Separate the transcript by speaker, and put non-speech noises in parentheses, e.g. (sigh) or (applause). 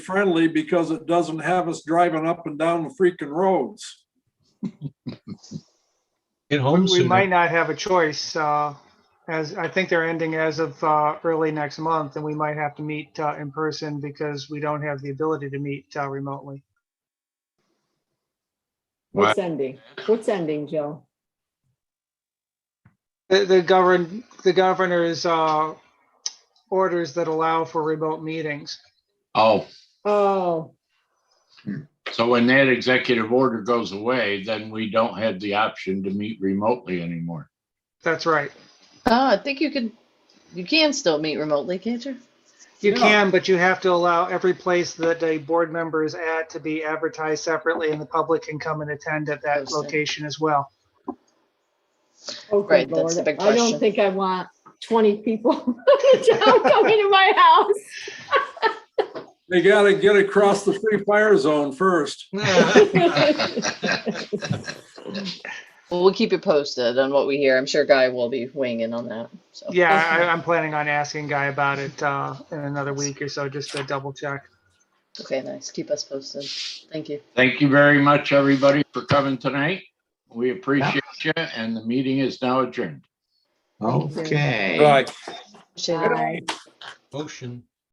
Speaker 1: friendly because it doesn't have us driving up and down the freaking roads.
Speaker 2: Get
Speaker 3: We-
Speaker 2: home
Speaker 3: We might
Speaker 2: sooner.
Speaker 3: not have a choice, uh, as, I think they're ending as of uh, early next month, and we might have to meet uh, in person because we don't have the ability to meet uh, remotely.
Speaker 4: What's ending? What's ending, Joe?
Speaker 3: The, the govern, the governor's uh, orders that allow for remote meetings.
Speaker 5: Oh,
Speaker 4: Oh,
Speaker 5: so when that executive order goes away, then we don't have the option to meet remotely anymore.
Speaker 3: That's right.
Speaker 6: Oh, I think you can, you can still meet remotely, can't you?
Speaker 3: You can, but you have to allow every place that a board member is at to be advertised separately, and the public can come and attend at that
Speaker 6: Posted.
Speaker 3: location as well.
Speaker 4: oh, good
Speaker 6: Right, that's
Speaker 4: lord.
Speaker 6: the big
Speaker 4: I don't
Speaker 6: question.
Speaker 4: think I want twenty people (laughs) in town coming to my house.
Speaker 1: They gotta get across the free fire zone first.
Speaker 6: (laughs)
Speaker 4: (laughs)
Speaker 6: Well, we'll keep you posted on what we hear. I'm sure Guy will be winging on that. So,
Speaker 3: Yeah, I, I'm planning on asking Guy about it uh, in another week or so, just to double check.
Speaker 6: okay, nice. Keep us posted. Thank you.
Speaker 5: Thank you very much, everybody, for coming tonight. We appreciate you, and the meeting is now adjourned.
Speaker 4: Okay.
Speaker 1: Right.
Speaker 6: Appreciate it.
Speaker 4: Bye.
Speaker 2: Motion.